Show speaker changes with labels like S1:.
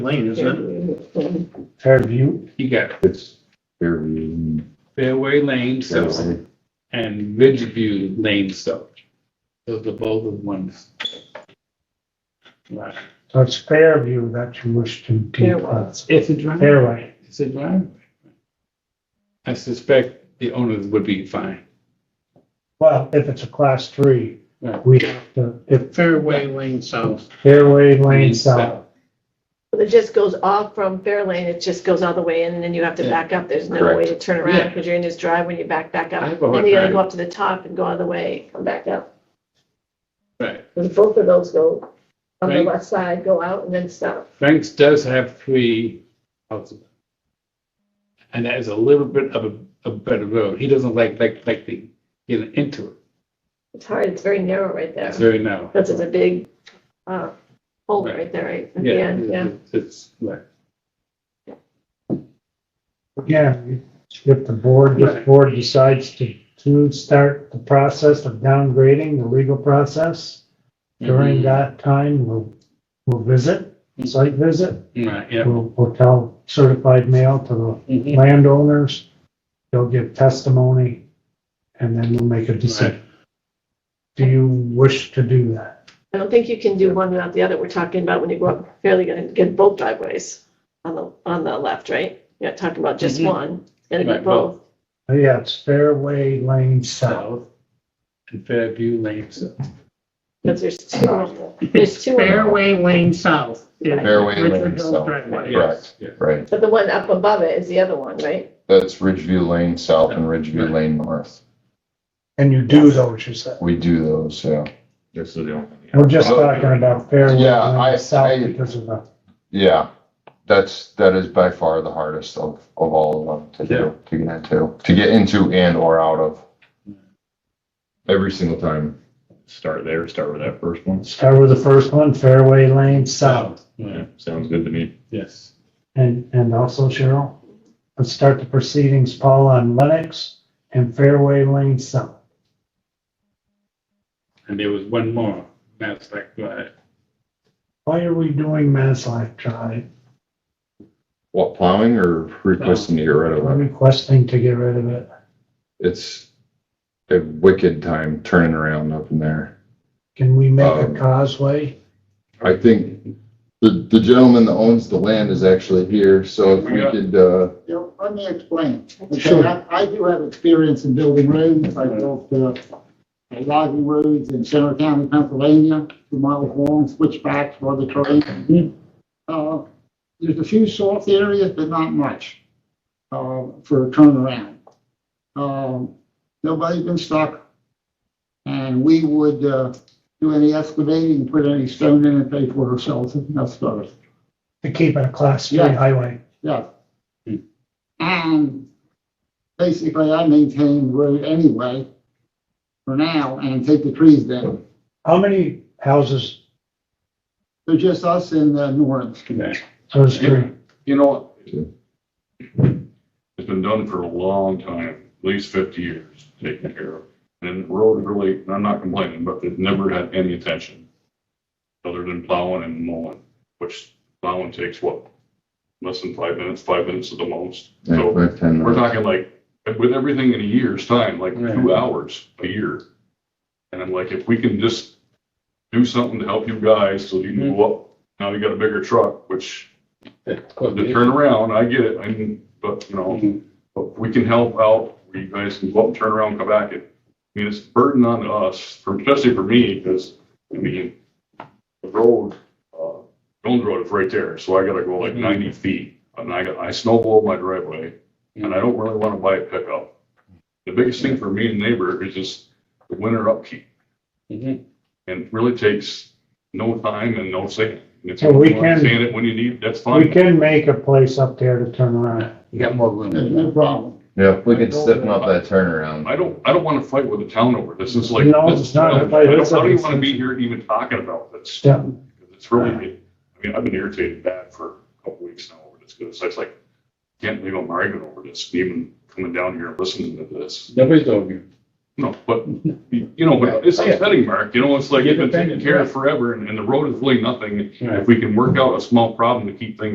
S1: lane, isn't it?
S2: Fairview,
S3: You got
S4: It's Fairview.
S3: Fairway Lane South
S4: Fairway.
S3: and Ridgeview Lane South. Those are both of ones. Right.
S2: so it's Fairview that you wish to declass.
S3: It's a driveway.
S2: Fairway,
S3: It's a driveway. I suspect the owners would be fine.
S2: well, if it's a class three,
S3: Right.
S2: we have to, if
S1: Fairway Lane South.
S2: Fairway Lane South,
S5: Well, It just goes off from Fairlane, it just goes all the way in, and then you have to
S3: Yeah.
S5: back up. There's no
S4: Correct.
S5: way to turn
S3: Yeah.
S5: around, because you're in this drive when you back, back
S3: I
S5: up.
S3: have a hard
S5: And you gotta
S3: time.
S5: go up to the top and go all the way, come back up.
S3: Right.
S5: And both of those go on the
S3: Right.
S5: left side, go out and then stop.
S3: Frank's does have three houses. And that is a little bit of a, a better road. He doesn't like, like, like the, get into it.
S5: It's hard, it's very narrow right there.
S3: It's very narrow.
S5: That's just a big, uh, hole
S3: Right.
S5: right there, right? at the
S3: Yeah,
S5: end, yeah.
S3: it's- it's, right.
S2: again, if the board, this
S3: Right.
S2: board decides to, to start the process of downgrading, the legal process,
S3: Mm-hmm.
S2: during that time, we'll, we'll visit, site visit,
S3: Right, yeah.
S2: we'll, we'll tell certified mail to the
S3: Mhm.
S2: landowners, they'll give testimony, and then we'll make a decision. Do you wish to do that?
S5: I don't think you can do one without the other. We're talking about when you go up, fairly gonna get both driveways on the, on the left, right? You're not talking about just
S3: Mhm.
S5: one, it'll be
S3: Right, both.
S5: both.
S2: Oh, Yeah, it's Fairway Lane South.
S3: South and Fairview Lane South.
S5: Because there's two of them. There's
S1: It's
S5: two of them.
S1: Fairway Lane South. is
S4: Fairway Lane
S1: Richard Hill's
S4: South.
S1: driveway.
S4: Correct.
S3: Yes,
S4: Right,
S5: But the one up above it is the other one, right?
S4: that's Ridgeview Lane South and Ridgeview Lane North.
S2: And you do those, you said.
S4: We do those, yeah.
S6: This is the only.
S2: We're just talking about Fairway
S4: Yeah, I-
S2: Lane South
S4: I-
S2: because of the,
S4: Yeah, that's, that is by far the hardest of, of all of them to do, to get into, to get into and or out of. Every single time.
S6: Start there, start with that first one.
S2: start with the first one, Fairway Lane
S3: yeah.
S2: South.
S3: Yeah,
S6: Yeah, sounds good to me.
S3: Yes.
S2: And, and also Cheryl, let's start the proceedings, Paul, on Lennox and Fairway Lane South.
S3: And there was one more, that's like, right.
S2: Why are we doing Maslack Drive?
S4: What, plowing or requesting to get rid of
S2: We're
S4: it?
S2: requesting to get rid of it.
S4: It's a wicked time turning around up in there.
S2: Can we make a
S4: Um,
S2: causeway?
S4: I think the, the gentleman that owns the land is actually here, so if we
S3: Yeah.
S4: could, uh,
S7: You know, let me explain. Okay,
S2: Sure.
S7: I I do have experience in building roads. I built uh, logging roads in Center County, Pennsylvania, two miles long, switchbacks for the terrain. Uh, There's a few soft areas, but not much uh, for a turnaround. Um, Nobody's been stuck. And we would uh, do any excavating, put any stone in and pay for ourselves. and That's about it.
S2: to keep it a class three
S7: Yeah.
S2: highway.
S7: Yeah.
S3: Hmm.
S7: And basically, I maintain the road anyway for now and take the trees down.
S2: How many houses
S7: They're just us uh, in the north.
S3: Right.
S2: those three?
S6: You know, it's been done for a long time, at least fifty years, taken care of. And the road really, and I'm not complaining, but they've never had any attention. Other than plowing and mowing, which plowing takes what? Less than five minutes, five minutes at the most.
S4: yeah,
S6: So
S4: five, ten
S6: we're
S4: minutes.
S6: talking like, with everything in a year's time, like two
S3: Right.
S6: hours a year. And I'm like, if we can just do something to help you guys, so you can go up, now you got a bigger truck, which
S3: That
S6: to
S3: could be-
S6: turn around, I get it, I mean, but, you know,
S3: Mhm.
S6: but we can help out, where you guys can go up, turn around, come back, and, I mean, it's a burden on us, for- especially for me, because, I mean, the road, uh, Jones Road is right there, so I gotta go like
S3: Mm-hmm.
S6: ninety feet, and I, got- I snowball my driveway,
S3: Mm-hmm.
S6: and I don't really wanna buy a pickup. The biggest thing for me and neighbor is just the winter upkeep,
S3: Mhm.
S6: and it really takes no time and no sand. And if
S2: So we
S6: you wanna
S2: can-
S6: Sand it when you need, that's
S2: We
S6: fine.
S2: can make a place up there to turn around.
S3: You got more room.
S7: There's no problem.
S4: Yeah, if we could stiffen up that turnaround.
S6: I don't, I don't want to fight with the town over this. It's like.
S2: No,
S6: this-
S2: it's not a
S6: I
S2: fight.
S6: don't,
S2: It's a
S6: I don't even want to be
S2: discussion.
S6: here even talking about this.
S2: Yeah.
S6: It's really, I mean, I've been irritated bad for a couple weeks now over this. Cause it's like, can't believe I'm arguing over this, even coming down here and listening to this.
S3: Nobody's over you.
S6: No, but, you know, but it's upsetting, Mark. You know, it's like,
S3: You're
S6: you've been taking
S3: defending,
S6: care
S3: right.
S6: of forever and, and the road is really nothing.
S3: Right.
S6: If we can work out a small problem to keep things